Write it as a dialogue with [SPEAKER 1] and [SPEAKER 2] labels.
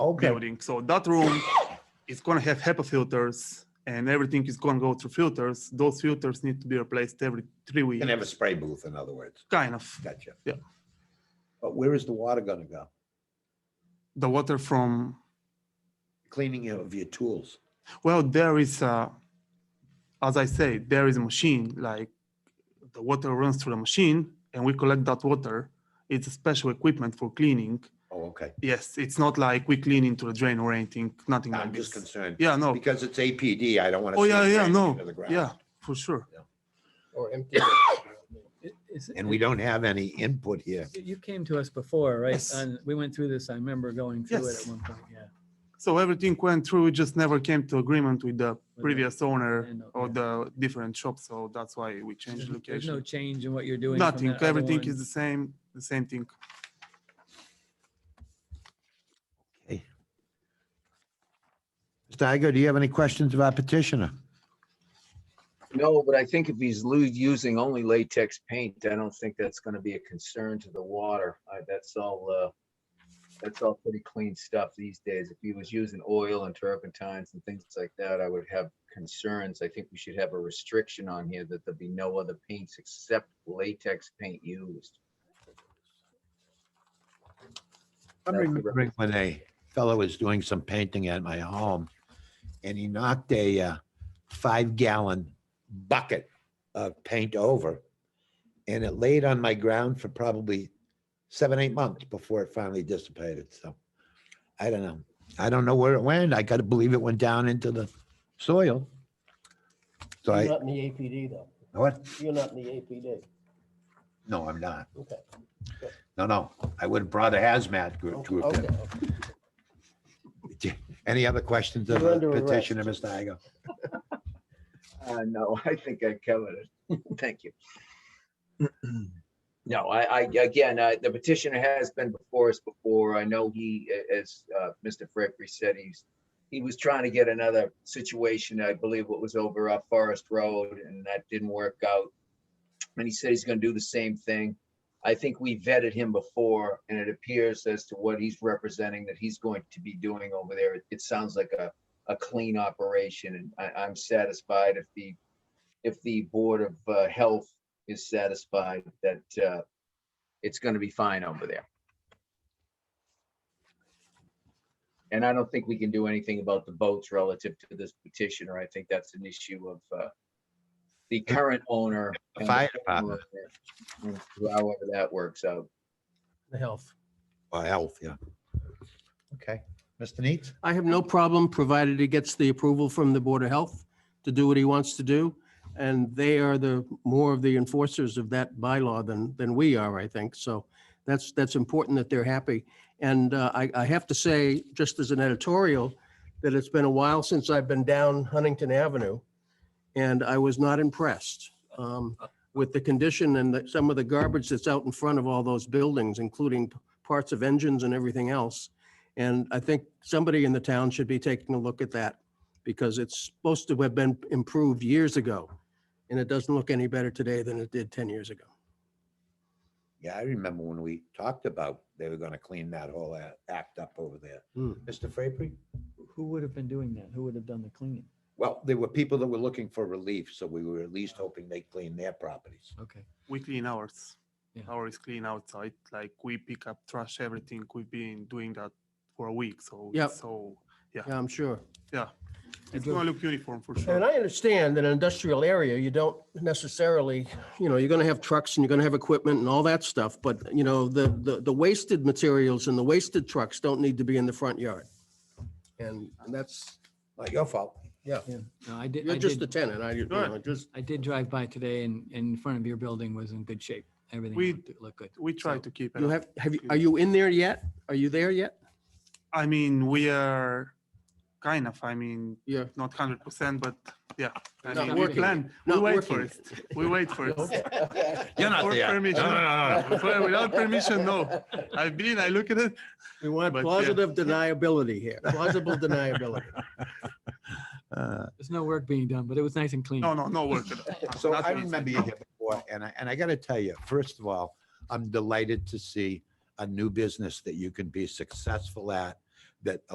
[SPEAKER 1] Okay.
[SPEAKER 2] building. So that room is going to have HEPA filters and everything is going to go through filters. Those filters need to be replaced every three
[SPEAKER 3] You
[SPEAKER 2] weeks.
[SPEAKER 3] can have a spray booth, in other words.
[SPEAKER 2] Kind of.
[SPEAKER 3] Gotcha.
[SPEAKER 2] Yeah.
[SPEAKER 3] But where is the water gonna go?
[SPEAKER 2] The water from,
[SPEAKER 3] Cleaning of your tools.
[SPEAKER 2] well, there is, a, as I say, there is a machine, like the water runs through the machine and we collect that water. It's a special equipment for cleaning.
[SPEAKER 3] Oh, okay.
[SPEAKER 2] Yes, it's not like we clean into the drain or anything, nothing
[SPEAKER 3] I'm
[SPEAKER 2] like
[SPEAKER 3] just
[SPEAKER 2] this.
[SPEAKER 3] concerned.
[SPEAKER 2] Yeah, no.
[SPEAKER 3] Because it's APD, I don't wanna.
[SPEAKER 2] Oh,
[SPEAKER 3] see
[SPEAKER 2] yeah,
[SPEAKER 3] it
[SPEAKER 2] yeah,
[SPEAKER 3] crashing
[SPEAKER 2] no.
[SPEAKER 3] into the ground.
[SPEAKER 2] Yeah, for sure.
[SPEAKER 1] Or empty.
[SPEAKER 4] It- it's-
[SPEAKER 3] And we don't have any input here.
[SPEAKER 4] you- You came to us before, right?
[SPEAKER 2] Yes.
[SPEAKER 4] And we went through this. I remember going through it
[SPEAKER 2] Yes.
[SPEAKER 4] at one point, yeah.
[SPEAKER 2] So everything went through, we just never came to agreement with the
[SPEAKER 4] the
[SPEAKER 2] previous owner
[SPEAKER 4] landlord,
[SPEAKER 2] or Oh,
[SPEAKER 4] yeah.
[SPEAKER 2] the different shop, so that's why we changed
[SPEAKER 4] uh, There's- There's no
[SPEAKER 2] location.
[SPEAKER 4] change in what you're doing. from
[SPEAKER 2] Nothing,
[SPEAKER 4] that other
[SPEAKER 2] everything
[SPEAKER 4] one.
[SPEAKER 2] is the same, the same thing.
[SPEAKER 3] Mr. Igo, do you have any questions about petitioner?
[SPEAKER 5] No, but I think if he's lu- using only latex paint, I don't think that's gonna be a concern to the water. I, that's all, uh, that's all pretty clean stuff these days. If he was using oil and turpentines and things like that, I would have concerns. I think we should have a restriction on here that there be no other paints except latex paint used.
[SPEAKER 3] I'm
[SPEAKER 5] That's the
[SPEAKER 3] remembering when a fellow was doing some painting at my home and he knocked a uh, five gallon bucket of paint over. And it laid on my ground for probably seven, eight months before it finally dissipated. So I don't know. I don't know where it went. I gotta believe it went down into the soil. So
[SPEAKER 6] You're
[SPEAKER 3] I,
[SPEAKER 6] not in the APD though.
[SPEAKER 3] what?
[SPEAKER 6] You're not in the APD.
[SPEAKER 3] No, I'm not.
[SPEAKER 6] Okay.
[SPEAKER 3] No, no. I would have brought a hazmat group
[SPEAKER 6] Okay.
[SPEAKER 3] to have
[SPEAKER 6] Oh, okay,
[SPEAKER 3] been.
[SPEAKER 6] okay.
[SPEAKER 3] Any other questions of
[SPEAKER 6] You're
[SPEAKER 3] the
[SPEAKER 6] under arrest.
[SPEAKER 3] petitioner, Mr. Igo?
[SPEAKER 5] Uh, no, I think I covered it. Thank you. No, I, I, again, uh, the petitioner has been before us before. I know he, a- as, uh, Mr. Frapery said, he's, he was trying to get another situation, I believe what was over off Forest Road, and that didn't work out. And he said he's gonna do the same thing. I think we vetted him before, and it appears as to what he's representing that he's going to be doing over there. It- It sounds like a, a clean operation, and I, I'm satisfied if the, if the Board of uh, Health is satisfied that uh, it's going to be fine over there. And I don't think we can do anything about the boats relative to this petitioner. I think that's an issue of uh, the current owner. and the
[SPEAKER 3] Fire
[SPEAKER 5] former
[SPEAKER 3] department
[SPEAKER 5] owner, However that works out.
[SPEAKER 4] The health.
[SPEAKER 3] or health, yeah. Okay, Mr. Neets?
[SPEAKER 6] I have no problem, provided he gets the approval from the Board of Health to do what he wants to do. And they are the, more of the enforcers of that bylaw than, than we are, I think. So that's, that's important that they're happy. And uh, I, I have to say, just as an editorial, that it's been a while since I've been down Huntington Avenue. And I was not impressed um, with the condition and the- some of the garbage that's out in front of all those buildings, including p- parts of engines and everything else. And I think somebody in the town should be taking a look at that because it's supposed to have been improved years ago. And it doesn't look any better today than it did 10 years ago.
[SPEAKER 3] Yeah, I remember when we talked about they were gonna clean that whole a- act up over there.
[SPEAKER 6] Hmm.
[SPEAKER 3] Mr. Frapery?
[SPEAKER 4] Who would have been doing that? Who would have done the cleaning?
[SPEAKER 3] Well, there were people that were looking for relief, so we were at least hoping they clean their properties.
[SPEAKER 4] Okay.
[SPEAKER 2] We clean ours.
[SPEAKER 4] Yeah.
[SPEAKER 2] Ours clean outside, like we pick up trash, everything. We've been doing that for a week, so,
[SPEAKER 6] Yep.
[SPEAKER 2] so
[SPEAKER 6] Yeah, I'm sure.
[SPEAKER 2] it's gonna look uniform for sure.
[SPEAKER 6] And I understand that in an industrial area, you don't necessarily, you know, you're going to have trucks and you're going to have equipment and all that stuff. But, you know, the, the, the wasted materials and the wasted trucks don't need to be in the front yard. And that's,
[SPEAKER 3] Not your fault.
[SPEAKER 4] Yeah. No, I did,
[SPEAKER 6] you're
[SPEAKER 4] I
[SPEAKER 6] just a
[SPEAKER 4] did,
[SPEAKER 6] tenant. I, you know,
[SPEAKER 2] Right.
[SPEAKER 6] just,
[SPEAKER 4] I did drive by today and, and in front of your building was in good shape. Everything
[SPEAKER 2] We-
[SPEAKER 4] looked- looked good.
[SPEAKER 2] We try
[SPEAKER 4] So-
[SPEAKER 2] to keep it.
[SPEAKER 6] you
[SPEAKER 2] up.
[SPEAKER 6] have, have you, are you in there yet? Are you there yet?
[SPEAKER 2] I mean, we are kind of, I mean,
[SPEAKER 6] Yeah.
[SPEAKER 2] not hundred percent, but yeah. I
[SPEAKER 6] Not
[SPEAKER 2] mean, we
[SPEAKER 6] working
[SPEAKER 2] plan, we
[SPEAKER 6] Not
[SPEAKER 2] wait
[SPEAKER 6] working.
[SPEAKER 2] first, we wait first.
[SPEAKER 3] You're not
[SPEAKER 2] For
[SPEAKER 3] there. No,
[SPEAKER 2] permission.
[SPEAKER 3] no, no,
[SPEAKER 2] For- Without permission, no. I've been, I look at it,
[SPEAKER 6] We want
[SPEAKER 2] But, yeah.
[SPEAKER 6] plausible deniability here, plausible deniability.
[SPEAKER 3] Uh,
[SPEAKER 4] There's no work being done, but it was nice and clean.
[SPEAKER 2] no, no, no work at all.
[SPEAKER 3] So I
[SPEAKER 2] Nothing is-
[SPEAKER 3] remember you
[SPEAKER 2] no.
[SPEAKER 3] here before, and I, and I gotta tell you, first of all, I'm delighted to see a new business that you can be successful at, that